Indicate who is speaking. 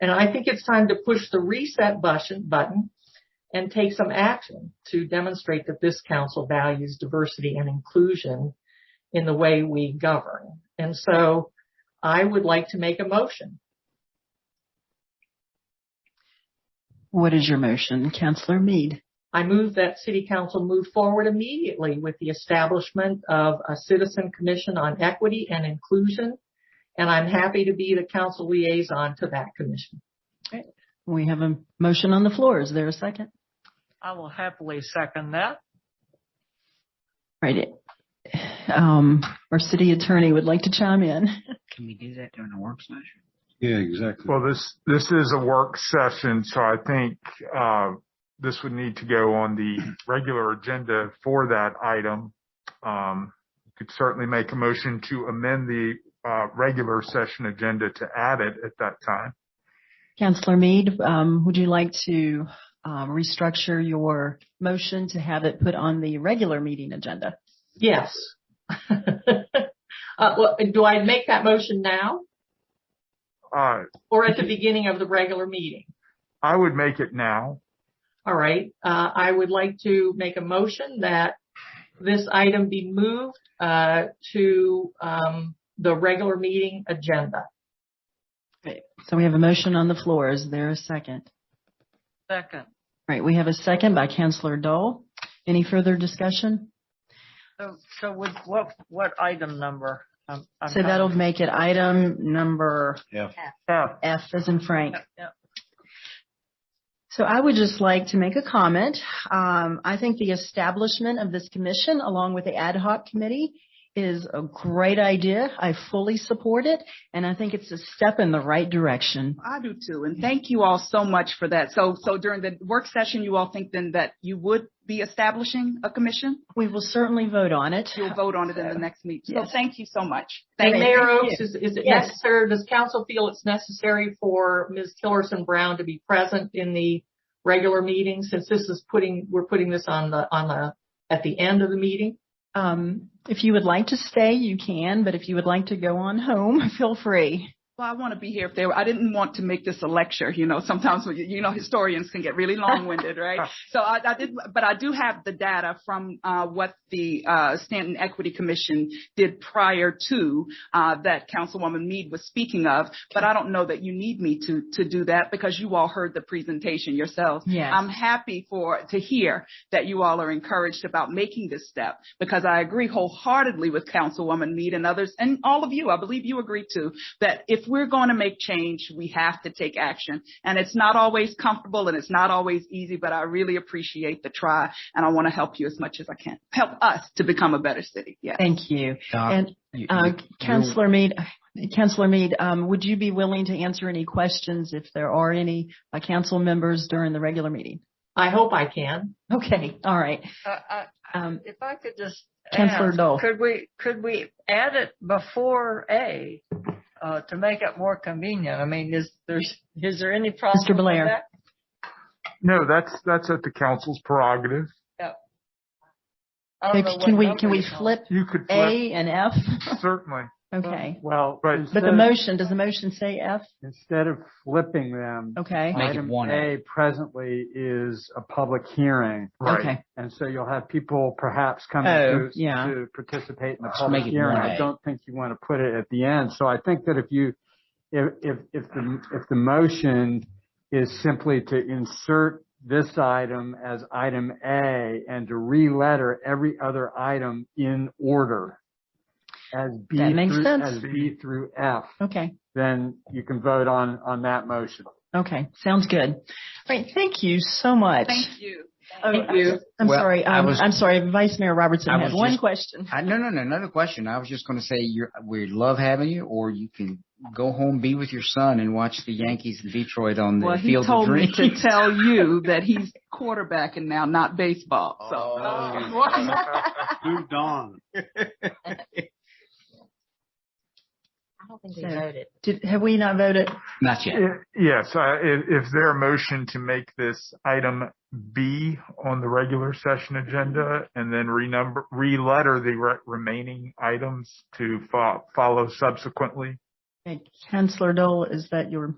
Speaker 1: And I think it's time to push the reset button, button and take some action to demonstrate that this council values diversity and inclusion in the way we govern. And so I would like to make a motion.
Speaker 2: What is your motion, Councillor Mead?
Speaker 1: I move that city council move forward immediately with the establishment of a citizen commission on equity and inclusion. And I'm happy to be the council liaison to that commission.
Speaker 2: We have a motion on the floor. Is there a second?
Speaker 3: I will happily second that.
Speaker 2: Right. Um, our city attorney would like to chime in.
Speaker 4: Can we do that during a work session?
Speaker 5: Yeah, exactly.
Speaker 6: Well, this, this is a work session, so I think, uh, this would need to go on the regular agenda for that item. Um, you could certainly make a motion to amend the, uh, regular session agenda to add it at that time.
Speaker 2: Councillor Mead, um, would you like to um, restructure your motion to have it put on the regular meeting agenda?
Speaker 1: Yes. Uh, well, do I make that motion now
Speaker 6: Uh,
Speaker 1: or at the beginning of the regular meeting?
Speaker 6: I would make it now.
Speaker 1: All right, uh, I would like to make a motion that this item be moved, uh, to, um, the regular meeting agenda.
Speaker 2: So we have a motion on the floor. Is there a second?
Speaker 3: Second.
Speaker 2: Right. We have a second by Councillor Dole. Any further discussion?
Speaker 3: So, so with what, what item number? Um, I'm
Speaker 2: So that'll
Speaker 3: not-
Speaker 2: make it item number
Speaker 3: F.
Speaker 2: F as in Frank.
Speaker 3: Yeah.
Speaker 2: So I would just like to make a comment. Um, I think the establishment of this commission along with the ad hoc committee is a great idea. I fully support it and I think it's a step in the right direction.
Speaker 7: I do too. And thank you all so much for that. So, so during the work session, you all think then that you would be establishing a commission?
Speaker 2: We will certainly vote on it.
Speaker 7: You'll vote on it in the next meeting. So
Speaker 2: Yes.
Speaker 7: thank you so much.
Speaker 1: And
Speaker 7: Thank you.
Speaker 1: Mayor Oaks, is, is it
Speaker 2: Yes.
Speaker 1: necessary, does council feel it's necessary for Ms. Tillerson Brown to be present in the regular meeting since this is putting, we're putting this on the, on the, at the end of the meeting?
Speaker 2: Um, if you would like to stay, you can, but if you would like to go on home, feel free.
Speaker 7: Well, I want to be here if they were, I didn't want to make this a lecture, you know, sometimes, when you you know, historians can get really long-winded, right? So I, I did, but I do have the data from, uh, what the, uh, Stanton Equity Commission did prior to, uh, that Councilwoman Mead was speaking of, but I don't know that you need me to, to do that because you all heard the presentation yourselves.
Speaker 2: Yes.
Speaker 7: I'm happy for, to hear that you all are encouraged about making this step because I agree wholeheartedly with Councilwoman Mead and others and all of you, I believe you agree too, that if we're going to make change, we have to take action. And it's not always comfortable and it's not always easy, but I really appreciate the try and I want to help you as much as I can. Help us to become a better city. Yeah.
Speaker 2: Thank you.
Speaker 4: Doc,
Speaker 2: And
Speaker 4: you-
Speaker 2: Uh,
Speaker 4: you-
Speaker 2: Councillor Mead, Councillor Mead, um, would you be willing to answer any questions if there are any by council members during the regular meeting?
Speaker 1: I hope I can.
Speaker 2: Okay, all right.
Speaker 3: Uh, I-
Speaker 2: Um,
Speaker 3: If I could just
Speaker 2: Councillor
Speaker 3: ask,
Speaker 2: Dole.
Speaker 3: could we, could we add it before A, uh, to make it more convenient? I mean, is there's, is there any problem? with
Speaker 2: Blair.
Speaker 3: that?
Speaker 6: No, that's, that's at the council's prerogative.
Speaker 3: I don't know what
Speaker 2: Can we,
Speaker 3: number
Speaker 2: can we
Speaker 3: it's on.
Speaker 2: flip
Speaker 6: You could flip,
Speaker 2: A and F?
Speaker 6: certainly.
Speaker 2: Okay.
Speaker 8: Well,
Speaker 6: Right.
Speaker 2: But
Speaker 8: instead,
Speaker 2: the motion, does the motion say F?
Speaker 8: instead of flipping them,
Speaker 2: Okay.
Speaker 4: Make it
Speaker 8: item
Speaker 4: one
Speaker 8: A presently is a public hearing,
Speaker 6: Right.
Speaker 2: Okay.
Speaker 8: and so you'll have people perhaps coming
Speaker 2: Oh,
Speaker 8: to,
Speaker 2: yeah.
Speaker 8: to participate in the
Speaker 4: Let's
Speaker 8: public
Speaker 4: make it
Speaker 8: hearing.
Speaker 4: one A.
Speaker 8: I don't think you want to put it at the end. So I think that if you, if if if the if the motion is simply to insert this item as item A and to re-letter every other item in order as B
Speaker 2: That makes
Speaker 8: through-
Speaker 2: sense.
Speaker 8: as B through F.
Speaker 2: Okay.
Speaker 8: then you can vote on, on that motion.
Speaker 2: Okay. Sounds good. All right. Thank you so much.
Speaker 7: Thank you.
Speaker 2: Oh,
Speaker 1: Thank
Speaker 2: I'm-
Speaker 1: you.
Speaker 2: I'm
Speaker 4: Well,
Speaker 2: sorry.
Speaker 4: I
Speaker 2: Um,
Speaker 4: was-
Speaker 2: I'm sorry. Vice Mayor Robertson
Speaker 4: I
Speaker 2: had
Speaker 4: was
Speaker 2: one
Speaker 4: just-
Speaker 2: question.
Speaker 4: I, no, no, no, another question. I was just going to say you're, we love having you, or you can go home, be with your son, and watch the Yankees in Detroit on the
Speaker 7: Well, he
Speaker 4: Field of
Speaker 7: told me
Speaker 4: Dreams.
Speaker 7: to tell you that he's quarterbacking now, not baseball. So.
Speaker 8: Oh,
Speaker 1: Oh,
Speaker 9: Um,
Speaker 5: Moved on.
Speaker 9: I don't think we
Speaker 2: So-
Speaker 9: voted.
Speaker 2: Did, have we not voted?
Speaker 4: Not yet.
Speaker 6: I- Yes, I- i- if there a motion to make this item B on the regular session agenda and then renumber, re-letter the re- remaining items to fo- follow subsequently?
Speaker 2: Okay, Councillor Dole, is that your